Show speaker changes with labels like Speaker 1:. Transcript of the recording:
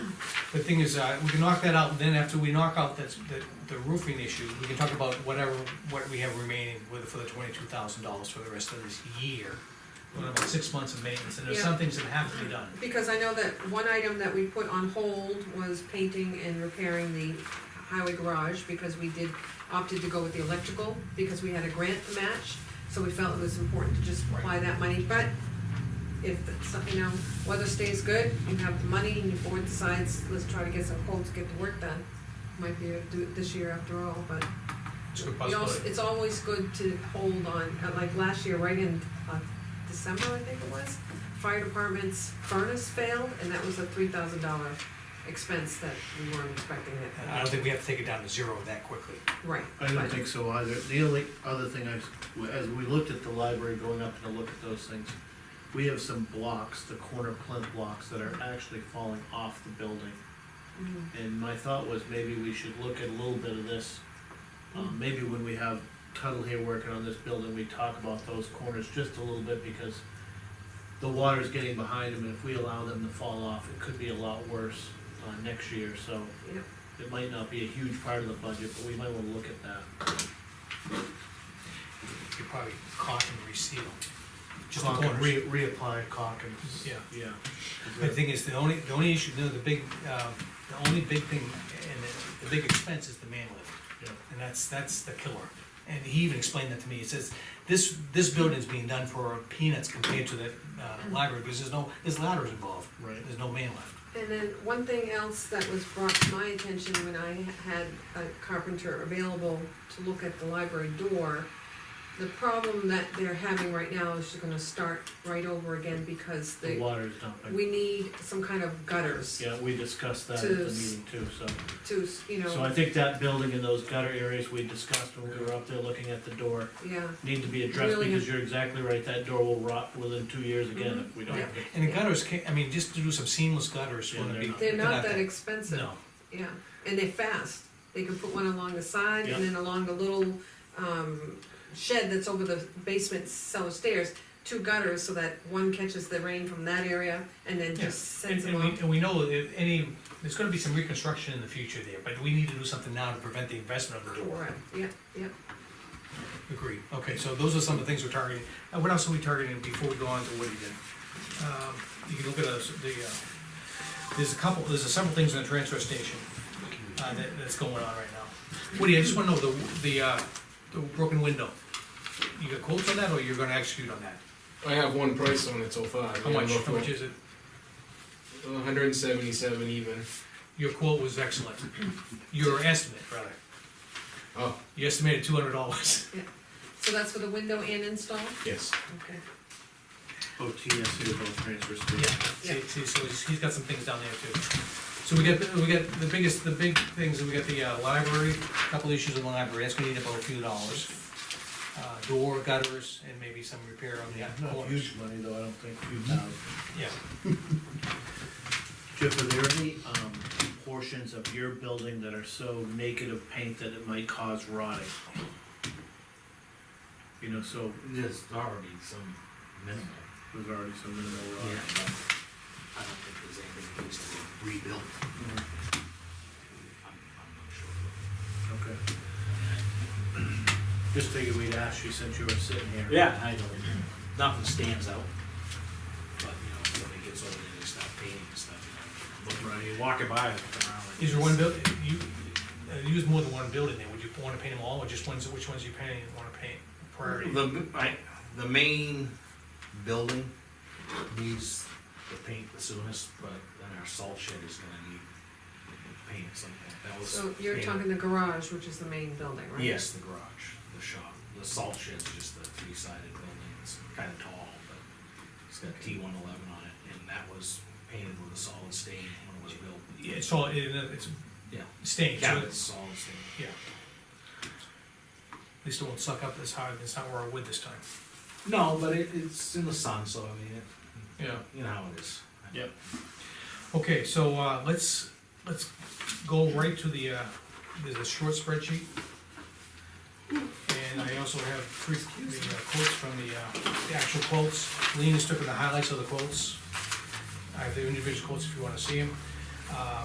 Speaker 1: The thing is, uh, we can knock that out, and then after we knock out that's, the, the roofing issue, we can talk about whatever, what we have remaining with, for the twenty-two thousand dollars for the rest of this year. We're about six months of maintenance, and there's
Speaker 2: Yeah.
Speaker 1: some things that have to be done.
Speaker 2: Because I know that one item that we put on hold was painting and repairing the highway garage, because we did, opted to go with the electrical, because we had a grant match, so we felt it was important to just apply that money, but if, it's, you know, weather stays good, you have the money, and your board decides, let's try to get some quotes, get the work done, might be, able to do it this year after all, but
Speaker 1: It's a good
Speaker 2: we also,
Speaker 1: possibility.
Speaker 2: it's always good to hold on, uh, like last year, right in, uh, December, I think it was, fire department's furnace failed, and that was a three thousand dollar expense that we weren't expecting
Speaker 1: And
Speaker 2: it.
Speaker 1: I don't think we have to take it down to zero that quickly.
Speaker 2: Right.
Speaker 3: I don't
Speaker 2: but-
Speaker 3: think so either. The only other thing I, s- as we looked at the library going up to look at those things, we have some blocks, the corner plinth blocks that are actually falling off the building.
Speaker 2: Mhm.
Speaker 3: And my thought was maybe we should look at a little bit of this. Um, maybe when we have Tuttle here working on this building, we talk about those corners just a little bit because the water's getting behind them and if we allow them to fall off, it could be a lot worse, uh, next year, so.
Speaker 2: Yep.
Speaker 3: It might not be a huge part of the budget, but we might wanna look at that.
Speaker 1: You probably caulk and reseal. Just the
Speaker 3: Caulk and
Speaker 1: corners.
Speaker 3: Re, reapply caulk and.
Speaker 1: Yeah.
Speaker 2: Mm-hmm.
Speaker 3: Yeah.
Speaker 1: The thing is, the only, the only issue, no, the big, um, the only big thing, and the, the big expense is the man lift.
Speaker 3: Yeah.
Speaker 1: And that's, that's the killer. And he even explained that to me. He says, this, this building's being done for peanuts compared to the, uh, library, because there's no, there's ladders involved.
Speaker 3: Right.
Speaker 1: There's no man left.
Speaker 2: And then one thing else that was brought to my attention when I had a carpenter available to look at the library door, the problem that they're having right now is just gonna start right over again because
Speaker 3: The
Speaker 2: they,
Speaker 3: water's dumping.
Speaker 2: we need some kind of gutters
Speaker 3: Yeah, we discussed that at the
Speaker 2: To s-
Speaker 3: meeting too, so.
Speaker 2: to, you know.
Speaker 3: So I think that building and those gutter areas we discussed when we were up there looking at the door
Speaker 2: Yeah,
Speaker 3: need to be addressed
Speaker 2: Really Mm-hmm.
Speaker 3: because you're exactly right, that door will rot within two years again if we don't.
Speaker 2: Yeah.
Speaker 3: fix
Speaker 1: And the gutters, ca- I mean, just to do some seamless gutters
Speaker 3: Yeah,
Speaker 1: wouldn't
Speaker 3: they're
Speaker 1: be.
Speaker 3: not-
Speaker 2: they're not that expensive.
Speaker 1: No,
Speaker 2: Yeah, and they're fast. They can put one along the side and then along the little, um, shed that's over the basement cellar stairs. Two gutters so that one catches the rain from that area and then
Speaker 1: Yeah.
Speaker 2: just
Speaker 1: and,
Speaker 2: sends
Speaker 1: and
Speaker 2: them
Speaker 1: we,
Speaker 2: off.
Speaker 1: and we know that if any, there's gonna be some reconstruction in the future there, but we need to do something now to prevent the investment of the door.
Speaker 2: Right, yeah, yeah.
Speaker 1: Agreed, okay, so those are some of the things we're targeting, and what else are we targeting before we go on to Woody then? Um, You can look at us, the, uh, there's a couple, there's several things in the transfer station, uh, that, that's going on right now. Woody, I just wanna know the, the, uh, the broken window, you got quotes on that, or you're gonna execute on that?
Speaker 4: I have one price on it so far.
Speaker 1: How much, how much is it?
Speaker 4: One hundred and seventy-seven even.
Speaker 1: Your quote was excellent, your estimate, rather,
Speaker 4: Oh,
Speaker 1: you estimated two hundred dollars.
Speaker 2: So that's for the window and install?
Speaker 4: yes.
Speaker 2: Okay.
Speaker 3: OTS is both transfer
Speaker 1: Yeah,
Speaker 3: station.
Speaker 1: see, see, so he's, he's got some things down there too. So we got, the- we got the biggest, the big things, we got the, uh, library, couple issues in the library, that's gonna need about a few dollars. Uh, door, gutters, and maybe some repair on
Speaker 3: Yeah, Mm-hmm.
Speaker 1: the
Speaker 3: not
Speaker 1: corners,
Speaker 3: huge money though, I don't think, few thousand.
Speaker 1: yeah.
Speaker 3: Jeff, are there any, um, portions of your building that are so naked of paint that it might cause rotting? You know, so
Speaker 5: There's already some minimal.
Speaker 3: there's already some minimal
Speaker 5: but
Speaker 3: rotting.
Speaker 5: I don't think there's anything that needs to be rebuilt. I'm, I'm
Speaker 3: Okay.
Speaker 5: not sure.
Speaker 3: Just figured we'd ask you since you were sitting here.
Speaker 5: Yeah, I know, nothing stands out. But, you know, when it gets old and you stop painting and stuff, you know,
Speaker 3: Right.
Speaker 5: you walk it by, and look around. like
Speaker 1: Is there
Speaker 5: this.
Speaker 1: one buil, you, uh, you use more than one building there, would you wanna paint them all, or just ones, which ones you paint, wanna paint priority?
Speaker 5: The, I, the main building needs the paint the soonest, but then our salt shed is gonna need paint at some point. That was.
Speaker 2: So you're
Speaker 5: painted-
Speaker 2: talking the garage, which is the main building, right?
Speaker 5: Yes, the garage, the shop, the salt shed's just a three-sided building, it's kinda tall, but it's got T one eleven on it, and that was painted with a solid stain when it was built.
Speaker 1: Yeah, It's all, it- it's
Speaker 5: Yeah,
Speaker 1: stained, so
Speaker 5: cabinet's
Speaker 1: it's-
Speaker 5: solid stain.
Speaker 1: yeah. At least it won't suck up as hard, it's not where I would this time.
Speaker 5: No, but it, it's in the sun, so I mean,
Speaker 1: Yeah.
Speaker 5: it, you know how it is.
Speaker 3: Yep.
Speaker 1: Okay, so, uh, let's, let's go right to the, uh, there's a short spreadsheet. And I also have three, the uh, quotes from the, uh, the actual quotes, Lean has took the highlights of the quotes. I have the individual quotes if you wanna see them. Uh,